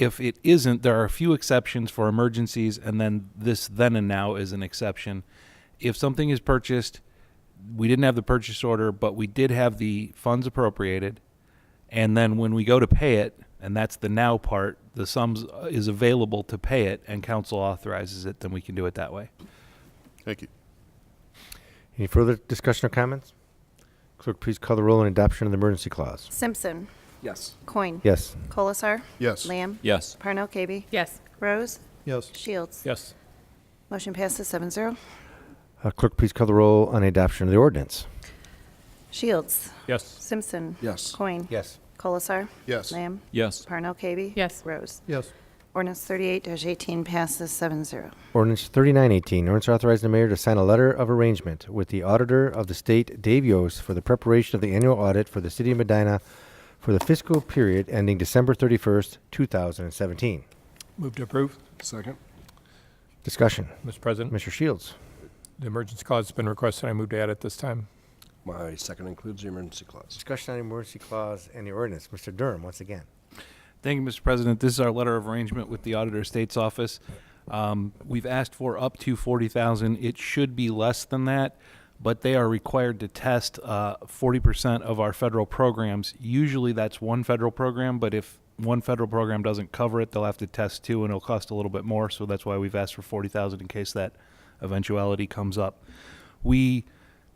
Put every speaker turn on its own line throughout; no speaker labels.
if it isn't, there are a few exceptions for emergencies, and then this then and now is an exception. If something is purchased, we didn't have the purchase order, but we did have the funds appropriated, and then when we go to pay it, and that's the now part, the sums uh, is available to pay it, and council authorizes it, then we can do it that way.
Thank you.
Any further discussion or comments? Clerk, please call the roll on adoption of the emergency clause.
Simpson.
Yes.
Coin.
Yes.
Colasar.
Yes.
Lamb.
Yes.
Parnell Kaby.
Yes.
Rose.
Yes.
Shields.
Yes.
Motion passes seven zero.
Uh, clerk, please call the roll on adoption of the ordinance.
Shields.
Yes.
Simpson.
Yes.
Coin.
Yes.
Colasar.
Yes.
Lamb.
Yes.
Parnell Kaby.
Yes.
Rose.
Yes.
Ordinance thirty-eight eighteen passes seven zero.
Ordinance 3918, ordinance authorizing the mayor to sign a letter of arrangement with the auditor of the state, Dave Yost, for the preparation of the annual audit for the city of Medina for the fiscal period ending December 31st, 2017.
Move to approve.
Second.
Discussion.
Mr. President,
Mr. Shields.
the emergency clause has been requested. I move to add it this time.
My second includes the emergency clause.
Discussion on the emergency clause and the ordinance. Mr. Durham, once again.
Thank you, Mr. President. This is our letter of arrangement with the Auditor of State's Office. Um, We've asked for up to 40,000. It should be less than that, but they are required to test uh, 40% of our federal programs. Usually, that's one federal program, but if one federal program doesn't cover it, they'll have to test two, and it'll cost a little bit more. So that's why we've asked for 40,000 in case that eventuality comes up. We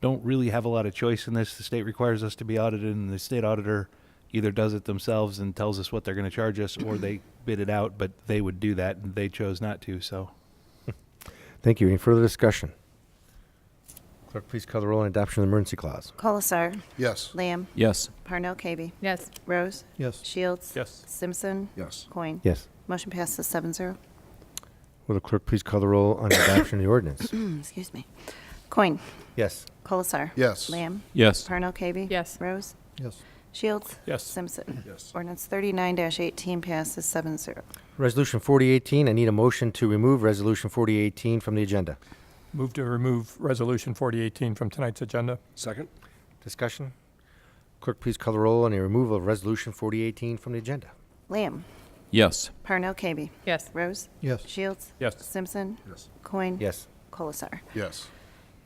don't really have a lot of choice in this. The state requires us to be audited, and the state auditor either does it themselves and tells us what they're going to charge us, or they bid it out, but they would do that, and they chose not to, so.
Thank you. Any further discussion? Clerk, please call the roll on adoption of the emergency clause.
Colasar.
Yes.
Lamb.
Yes.
Parnell Kaby.
Yes.
Rose.
Yes.
Shields.
Yes.
Simpson.
Yes.
Coin.
Yes.
Motion passes seven zero.
Will the clerk please call the roll on adoption of the ordinance?
Excuse me. Coin.
Yes.
Colasar.
Yes.
Lamb.
Yes.
Parnell Kaby.
Yes.
Rose.
Yes.
Shields.
Yes.
Simpson.
Yes.
Ordinance thirty-nine eighteen passes seven zero.
Resolution 4018, I need a motion to remove Resolution 4018 from the agenda.
Move to remove Resolution 4018 from tonight's agenda.
Second.
Discussion? Clerk, please call the roll on the removal of Resolution 4018 from the agenda.
Lamb.
Yes.
Parnell Kaby.
Yes.
Rose.
Yes.
Shields.
Yes.
Simpson.
Yes.
Coin.
Yes.
Colasar.
Yes.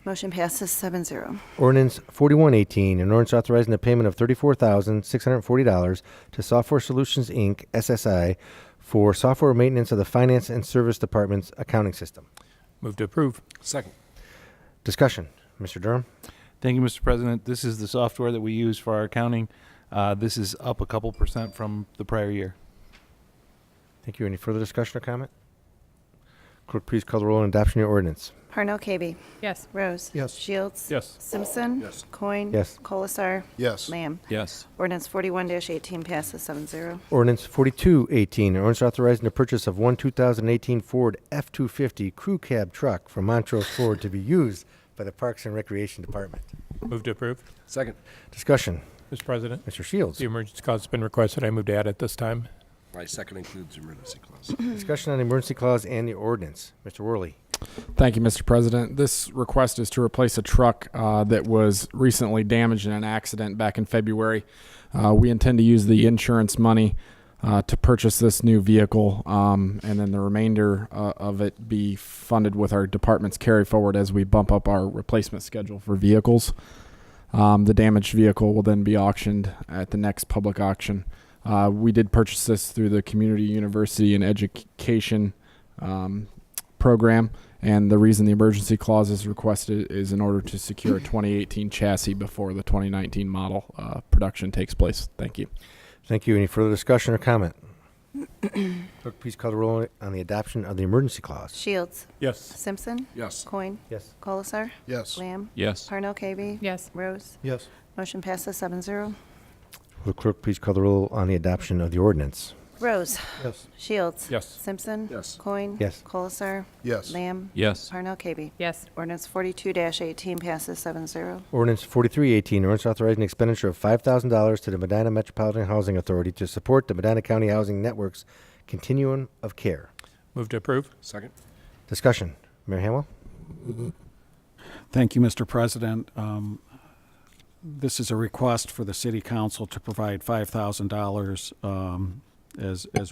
Motion passes seven zero.
Ordinance 4118, an ordinance authorizing the payment of $34,640 to Software Solutions, Inc., SSI, for software maintenance of the Finance and Service Department's accounting system.
Move to approve.
Second.
Discussion? Mr. Durham?
Thank you, Mr. President. This is the software that we use for our accounting. Uh, This is up a couple percent from the prior year.
Thank you. Any further discussion or comment? Clerk, please call the roll on adoption of the ordinance.
Parnell Kaby.
Yes.
Rose.
Yes.
Shields.
Yes.
Simpson.
Yes.
Coin.
Yes.
Colasar.
Yes.
Lamb.
Yes.
Ordinance forty-one eighteen passes seven zero.
Ordinance 4218, an ordinance authorizing the purchase of one 2018 Ford F-250 crew cab truck from Montrose Ford to be used by the Parks and Recreation Department.
Move to approve.
Second.
Discussion,
Mr. President,
Mr. Shields.
the emergency clause has been requested. I move to add it this time.
My second includes the emergency clause.
Discussion on the emergency clause and the ordinance. Mr. Worley.
Thank you, Mr. President. This request is to replace a truck uh, that was recently damaged in an accident back in February. Uh, we intend to use the insurance money uh, to purchase this new vehicle, um, and then the remainder uh, of it be funded with our department's carry forward as we bump up our replacement schedule for vehicles. Um, the damaged vehicle will then be auctioned at the next public auction. Uh, we did purchase this through the Community University and Education um, program. And the reason the emergency clause is requested is in order to secure a 2018 chassis before the 2019 model uh, production takes place. Thank you.
Thank you. Any further discussion or comment? Clerk, please call the roll on the adoption of the emergency clause.
Shields.
Yes.
Simpson.
Yes.
Coin.
Yes.
Colasar.
Yes.
Lamb.
Yes.
Parnell Kaby.
Yes.
Rose.
Yes.
Motion passes seven zero.
Will the clerk please call the roll on the adoption of the ordinance?
Rose.
Yes.
Shields.
Yes.
Simpson.
Yes.
Coin.
Yes.
Colasar.
Yes.
Lamb.
Yes.
Parnell Kaby.
Yes.
Ordinance forty-two eighteen passes seven zero.
Ordinance 4318, ordinance authorizing expenditure of $5,000 to the Medina Metropolitan Housing Authority to support the Medina County Housing Network's continuum of care.
Move to approve.
Second.
Discussion. Mayor Hamwell?
Thank you, Mr. President. Um, This is a request for the city council to provide $5,000 um, as, as